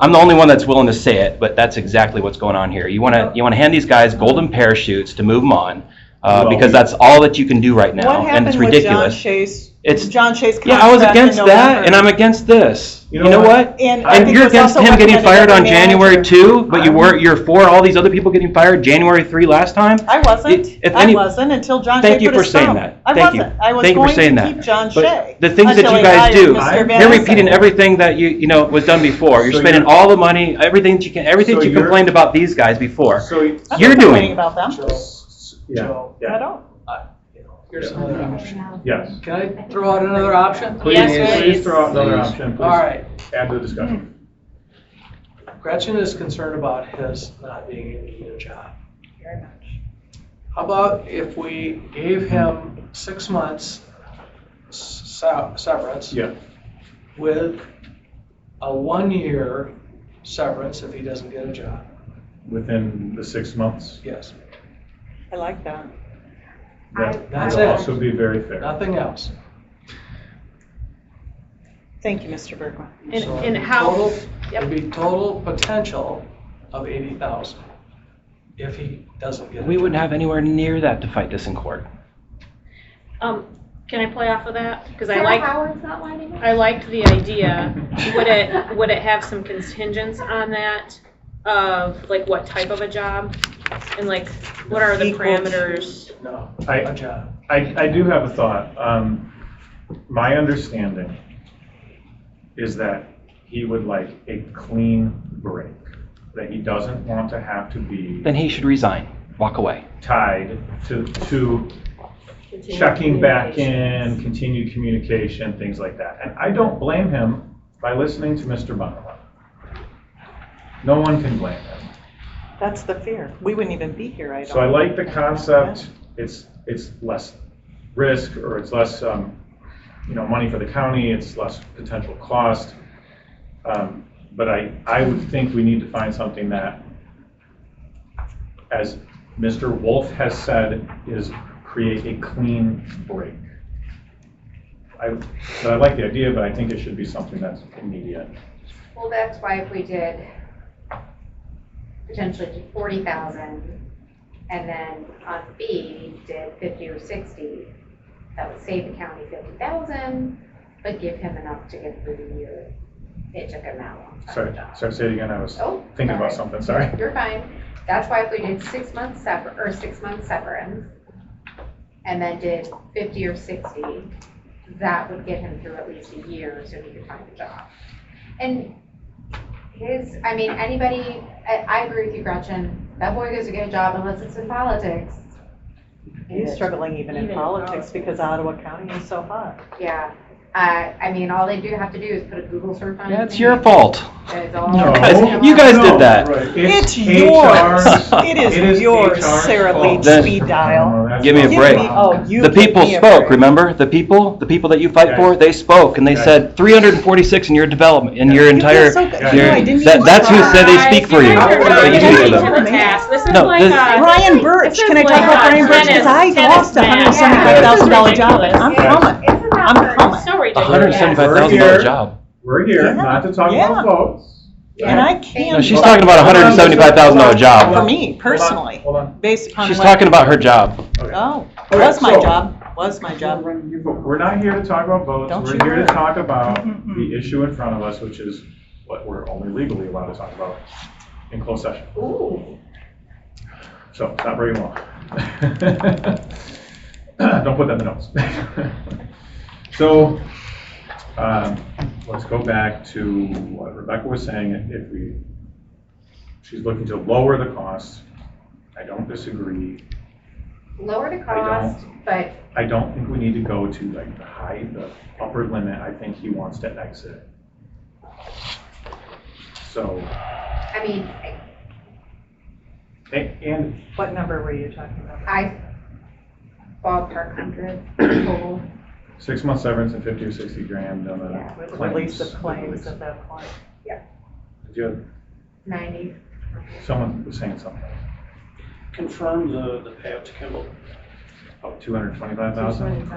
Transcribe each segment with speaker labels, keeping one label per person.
Speaker 1: I'm the only one that's willing to say it, but that's exactly what's going on here. You want to, you want to hand these guys golden parachutes to move them on, uh,
Speaker 2: Well,
Speaker 1: because
Speaker 2: we-
Speaker 1: that's all that you can do right now, and it's
Speaker 3: What happened with John
Speaker 1: ridiculous.
Speaker 3: Chase?
Speaker 1: It's-
Speaker 3: John Chase
Speaker 1: Yeah, I was
Speaker 3: contract in
Speaker 1: against that,
Speaker 3: November.
Speaker 1: and I'm against this. You know what?
Speaker 3: And I
Speaker 1: And
Speaker 3: think
Speaker 1: you're
Speaker 3: it's
Speaker 1: against
Speaker 3: also
Speaker 1: him getting
Speaker 3: recommended
Speaker 1: fired
Speaker 3: by
Speaker 1: on
Speaker 3: the
Speaker 1: January
Speaker 3: manager.
Speaker 1: two, but you
Speaker 2: I'm-
Speaker 1: weren't, you're for all these other people getting fired January three last time?
Speaker 3: I wasn't.
Speaker 1: If
Speaker 3: I
Speaker 1: any-
Speaker 3: wasn't until John Shea
Speaker 1: Thank you
Speaker 3: put
Speaker 1: for
Speaker 3: his
Speaker 1: saying
Speaker 3: thumb.
Speaker 1: that.
Speaker 3: I
Speaker 1: Thank you.
Speaker 3: wasn't. I was
Speaker 1: Thank you for
Speaker 3: going
Speaker 1: saying
Speaker 3: to
Speaker 1: that.
Speaker 3: keep John
Speaker 1: But
Speaker 3: Shea.
Speaker 1: the things that
Speaker 3: until
Speaker 1: you
Speaker 3: he
Speaker 1: guys
Speaker 3: hired
Speaker 1: do-
Speaker 3: Mr.
Speaker 2: You're
Speaker 1: You're
Speaker 3: Madison.
Speaker 1: repeating everything that you, you know, was done before. You're
Speaker 2: So
Speaker 1: spending
Speaker 2: you're-
Speaker 1: all the money, everything that you can, everything
Speaker 2: So
Speaker 1: that you
Speaker 2: you're-
Speaker 1: complained about these guys before.
Speaker 2: So, you-
Speaker 3: I'm not
Speaker 1: You're
Speaker 3: complaining
Speaker 1: doing-
Speaker 3: about them
Speaker 2: yeah,
Speaker 3: at
Speaker 2: yeah,
Speaker 3: all.
Speaker 4: Here's another option.
Speaker 2: yes.
Speaker 4: Can I throw out another option?
Speaker 2: Please, please throw out another option,
Speaker 4: All
Speaker 2: please,
Speaker 4: right,
Speaker 2: add to the discussion.
Speaker 4: Gretchen is concerned about his not being able to get a job. How about if we gave him six months se- severance
Speaker 2: Yeah,
Speaker 4: with a one-year severance if he doesn't get a job?
Speaker 2: within the six months,
Speaker 4: Yes,
Speaker 3: I like that.
Speaker 2: that
Speaker 4: That's
Speaker 2: would
Speaker 4: it.
Speaker 2: also be very fair.
Speaker 4: nothing else.
Speaker 3: Thank you, Mr. Bergman.
Speaker 5: And,
Speaker 4: So
Speaker 5: and
Speaker 4: the
Speaker 5: how,
Speaker 4: total- It'd
Speaker 5: yep,
Speaker 4: be total potential of eighty thousand if he doesn't get a job.
Speaker 1: We wouldn't have anywhere near that to fight this in court.
Speaker 5: um, can I play off of that? Because I
Speaker 6: Sarah
Speaker 5: like,
Speaker 6: Howard's not lining up?
Speaker 5: I liked the idea. Would it, would it have some contingents on that of like what type of a job? And like, what are the
Speaker 3: Equal to-
Speaker 5: parameters?
Speaker 4: No, uh,
Speaker 2: I-
Speaker 4: a job.
Speaker 2: I, I do have a thought. Um, my understanding is that he would like a clean break, that he doesn't want to have to be
Speaker 1: Then he should resign, walk away.
Speaker 2: tied to, to checking back in, continued communication, things like that. And I don't blame him by listening to Mr. Bonilla. No one can blame him.
Speaker 3: That's the fear. We wouldn't even be here, I don't.
Speaker 2: So I like the concept, it's, it's less risk, or it's less, um, you know, money for the county, it's less potential cost. Um, But I, I would think we need to find something that, as Mr. Wolf has said, is create a clean break. I, but I like the idea, but I think it should be something that's immediate.
Speaker 6: Well, that's why if we did potentially forty thousand, and then on B, did fifty or sixty, that would save the county fifty thousand, but give him enough to get through the year. It took him that long. to
Speaker 2: Sorry,
Speaker 6: find a job.
Speaker 2: sorry, say it again, I was
Speaker 6: Oh,
Speaker 2: thinking about
Speaker 6: sorry.
Speaker 2: something, sorry.
Speaker 6: You're fine. That's why if we did six months sever, or six months severance, and then did fifty or sixty, that would get him through at least a year so he could find a job. And his, I mean, anybody, I, I agree with you, Gretchen. That boy goes to get a job unless it's in politics.
Speaker 3: He's struggling even in
Speaker 5: Even in
Speaker 3: politics
Speaker 5: politics.
Speaker 3: because Ottawa County is so hot.
Speaker 6: Yeah. Uh, I mean, all they do have to do is put a Google search
Speaker 3: Um,
Speaker 6: on. his
Speaker 1: That's
Speaker 6: name.
Speaker 1: your fault.
Speaker 6: It's all.
Speaker 2: No.
Speaker 1: guys- you guys did that.
Speaker 2: No, right.
Speaker 3: It's yours.
Speaker 2: HR 's-
Speaker 3: It is yours,
Speaker 2: HR 's
Speaker 3: Sarah
Speaker 2: fault.
Speaker 1: Lee
Speaker 3: Speed Dial.
Speaker 2: No, that's
Speaker 1: Give me a
Speaker 2: not
Speaker 3: Give
Speaker 1: break.
Speaker 3: me-
Speaker 2: wrong.
Speaker 3: Oh, you
Speaker 1: The
Speaker 3: give
Speaker 1: people
Speaker 3: me a
Speaker 1: spoke,
Speaker 3: break.
Speaker 1: remember? The people, the people that you fight for,
Speaker 2: Guys.
Speaker 1: they spoke and they
Speaker 2: Guys.
Speaker 1: said 346 in your development, in your
Speaker 3: You feel
Speaker 1: entire.
Speaker 3: so good.
Speaker 2: Yeah,
Speaker 3: You know,
Speaker 1: your-
Speaker 3: I didn't
Speaker 1: that-
Speaker 3: even
Speaker 1: That's who
Speaker 3: try.
Speaker 1: said they speak for you.
Speaker 5: You guys are
Speaker 3: But
Speaker 5: not
Speaker 3: you
Speaker 5: getting
Speaker 3: do
Speaker 5: to
Speaker 3: them.
Speaker 5: the task. This is
Speaker 1: No,
Speaker 5: like
Speaker 1: this-
Speaker 5: a.
Speaker 3: Brian Birch,
Speaker 5: This is
Speaker 3: can I talk
Speaker 5: like
Speaker 3: about
Speaker 5: a
Speaker 3: Brian Birch? Because I
Speaker 5: tennis-
Speaker 3: lost a hundred and
Speaker 5: tennis
Speaker 3: seventy-five thoughan dollar
Speaker 5: match.
Speaker 3: job, and I'm
Speaker 2: Yeah.
Speaker 3: coming.
Speaker 6: Isn't that
Speaker 3: I'm
Speaker 6: hard?
Speaker 3: coming.
Speaker 5: So ridiculous.
Speaker 1: $175,000 job.
Speaker 2: We're here,
Speaker 3: Yeah.
Speaker 2: not to talk
Speaker 3: Yeah.
Speaker 2: about votes.
Speaker 3: And I
Speaker 1: No,
Speaker 3: can't.
Speaker 1: she's talking about a $175,000 job.
Speaker 3: For me,
Speaker 2: Hold on,
Speaker 3: personally.
Speaker 2: Hold on,
Speaker 3: Based upon
Speaker 1: She's
Speaker 3: what-
Speaker 1: talking about her job.
Speaker 2: okay.
Speaker 3: Oh,
Speaker 2: Okay,
Speaker 3: was my
Speaker 2: so-
Speaker 3: job, was my job.
Speaker 2: We're not here to talk about votes,
Speaker 3: Don't
Speaker 2: we're
Speaker 3: you Mm-hmm,
Speaker 2: here to
Speaker 3: worry.
Speaker 2: talk about
Speaker 3: Mm-mm-mm.
Speaker 2: the issue in front of us, which is what we're only legally allowed to talk about in closed session.
Speaker 6: Ooh.
Speaker 2: So, it's not very long. Don't put that in the notes. So, um, let's go back to what Rebecca was saying, if- if we, she's looking to lower the costs. I don't disagree.
Speaker 6: lower the
Speaker 2: I don't.
Speaker 6: cost, but
Speaker 2: I don't think we need to go to like the high, the upper limit. I think he wants to exit. So,
Speaker 6: I mean,
Speaker 2: a- and
Speaker 3: What number were you talking about?
Speaker 6: I ballpark hundred total.
Speaker 2: six month severance and fifty or sixty grand on
Speaker 6: Yeah,
Speaker 2: the
Speaker 3: With the
Speaker 2: claims.
Speaker 3: release of claims
Speaker 2: Release.
Speaker 3: at that point.
Speaker 2: Did you have-
Speaker 6: Ninety.
Speaker 2: Someone was saying something,
Speaker 7: confirm the, the payout to Kimball.
Speaker 2: oh, two hundred twenty-five thousand?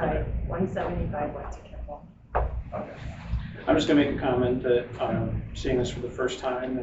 Speaker 8: one seventy-five went to Kimball.
Speaker 2: Okay.
Speaker 7: I
Speaker 4: I'm just gonna make a comment that, um, seeing this for the first time,